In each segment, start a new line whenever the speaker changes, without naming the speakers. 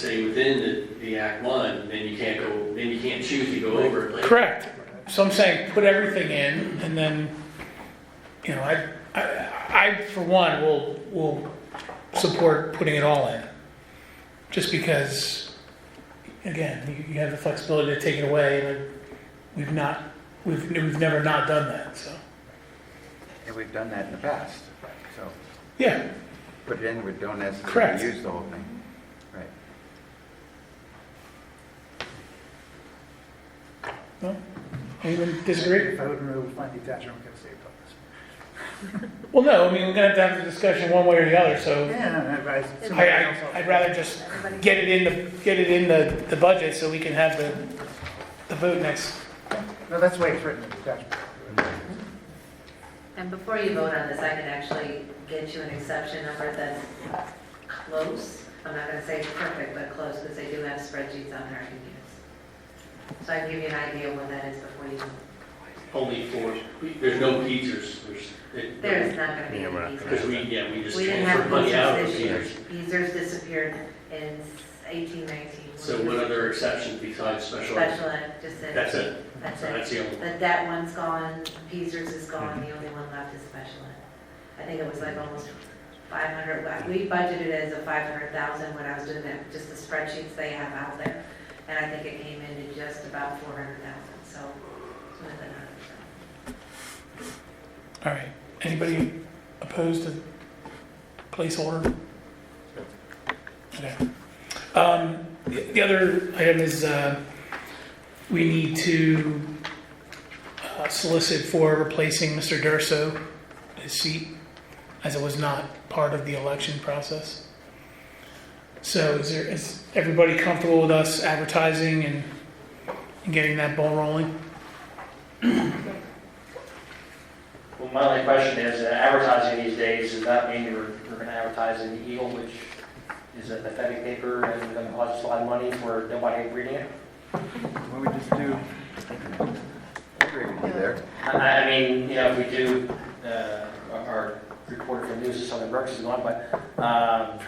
say within the, the Act One, then you can't go, then you can't choose to go over it later.
Correct. So I'm saying, put everything in, and then, you know, I, I, I for one, will, will support putting it all in. Just because, again, you, you have the flexibility to take it away, and we've not, we've, we've never not done that, so.
And we've done that in the past, so
Yeah,
put it in, we don't
Correct.
necessarily use the whole thing. Right.
no? Anyone disagree?
If I would remove my detachment, I'm gonna say bonus.
Well, no, I mean, we're gonna have to have the discussion one way or the other, so
Yeah, I,
I, I, I'd rather just
Everybody-
get it in the, get it in the, the budget so we can have the, the vote next,
No, that's the way it's written, detachment.
And before you vote on this, I can actually get you an exception number that's close. I'm not going to say perfect, but close, because they do have spreadsheets on there I can use. So I can give you an idea of what that is before you, vote.
Only for, there's no Peters, there's. it-
there is not going to be
Yeah, we're
any
not
Because we,
Beazers.
yeah, we just
We didn't have
transferred money out of
Beazers
the
this year.
Peters.
Beazers disappeared in 1819.
So what other exceptions besides special ed?
Special ed, just said.
That's it,
That's
so
it.
that's the only.
That, that one's gone, Peasers is gone, the only one left is special ed. I think it was like almost 500, wa- we budgeted it as a 500,000 when I was doing that, just the spreadsheets they have out there. And I think it came in to just about 400,000, so it's more than 100,000.
All right, anybody opposed to placeholder? Okay. Um, The the other item is, uh, we need to uh, solicit for replacing Mr. Durso, his seat, as it was not part of the election process. So is there, is everybody comfortable with us advertising and and getting that ball rolling?
Well, my only question is, uh, advertising these days, does that mean you're, you're gonna advertise in the Eagle, which is a pathetic paper and gonna cost us a lot of money for nobody reading it?
What we just do, I agree with you there.
I, I mean, you know, if we do, uh, our- our reporter for news is Southern Berks is gone, but, um,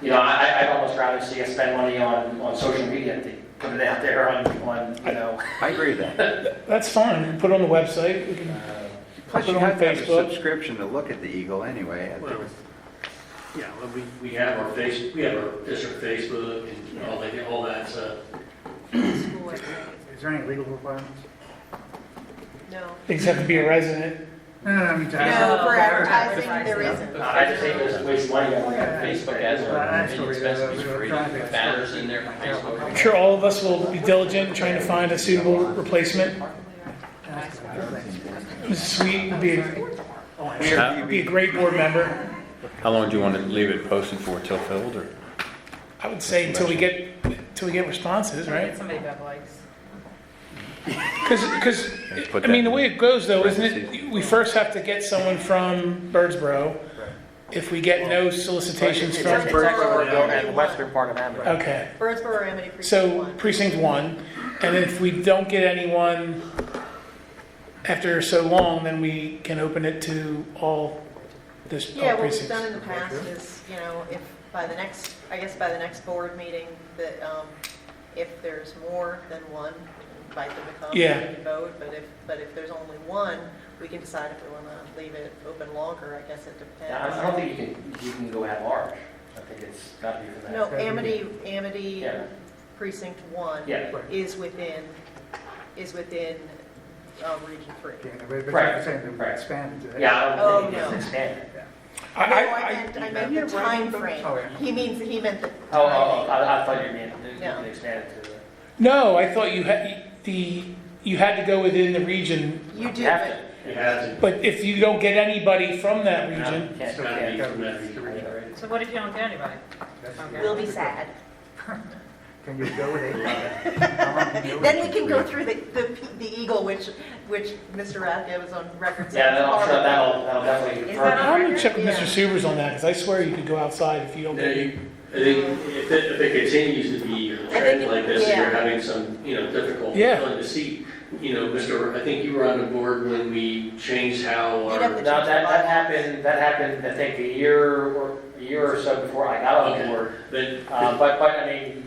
you know, I, I- I'd almost rather see us spend money on, on social media, to put it out there on, on, you know,
I agree with that.
That's fine, put it on the website, we can
uh,
Plus, you
Put it on
have to have a
Facebook.
subscription to look at the Eagle anyway. I think
Well, Yeah, well, we, we have our face, we have our district Facebook and all that, all that stuff.
Is there any legal requirements?
No.
Things have to be a resident.
No, no, no, I mean, to ask-
No, for advertising, there isn't.
I just think it's a waste of money on Facebook ads.
But I actually read it, I was trying to-
banners in there, Facebook.
I'm sure all of us will be diligent in trying to find a suitable replacement. Mrs. Sweet would be, a-
Oh,
Where do
would be a
you be-
great board member.
How long do you want to leave it posted for, till filled, or?
I would say until we get, until we get responses, right?
Somebody that likes.
Because,
Put
I mean, the
that in.
way it goes though, isn't it, we first have to get someone from Birdsboro. If we get no solicitations
It's-
from,
it's-
the western part of Amherst.
okay.
Birdsboro or Amity Precinct
So
One.
precinct one, and if we don't get anyone after so long, then we can open it to all this,
Yeah,
all
what we've done
precincts.
in the past is, you know, if by the next, I guess by the next board meeting, that um, if there's more than one, invite them to come
Yeah.
and vote, but if, but if there's only one, we can decide if we want to leave it open longer, I guess it
Yeah, I I don't
depends.
think you can, you can go at large. I think it's got to be for that.
No, Amity, Amity
Yeah.
Precinct One
Yeah,
is within, is within uh, Region Three.
Yeah, but- but I'm
Right,
saying that we
right.
expand it to.
yeah, I don't think
Oh,
it's
no.
expanded.
I,
No,
I,
I
I,
meant, I meant the
Oh,
timeframe.
yeah.
He means, he meant the
Oh, oh, oh,
timing.
I I thought you meant you
No.
can expand it to, the-
no, I thought you had, the, you had to go within the region,
You do,
you have to.
but
It hasn't,
but if you don't get anybody from that
No,
region,
can't-
it's gotta be
can't.
from that region.
So what if you don't get anybody?
That's-
we'll be sad.
Can you go with it?
Then we can go through the, the, the eagle, which, which Mr. Rathke was on record saying.
Yeah,
is
then I'm sure
horrible.
that'll, that'll definitely
Is
confirm.
that
I'm gonna check with
Yeah.
Mr. Subers on that, because I swear you could go outside if you don't
Now,
get.
you- I think if it, if it continues to be a
think
trend
it-
like this, and you're
yeah.
having some, you know, difficulty
Yeah.
on the seat. You know, Mr., I think you were on the board when we changed how
You'd have
our,
to-
No, that, that happened, that happened, I think, a year or, a year or so before I got on
Okay.
board.
but
Uh, But, but, I mean,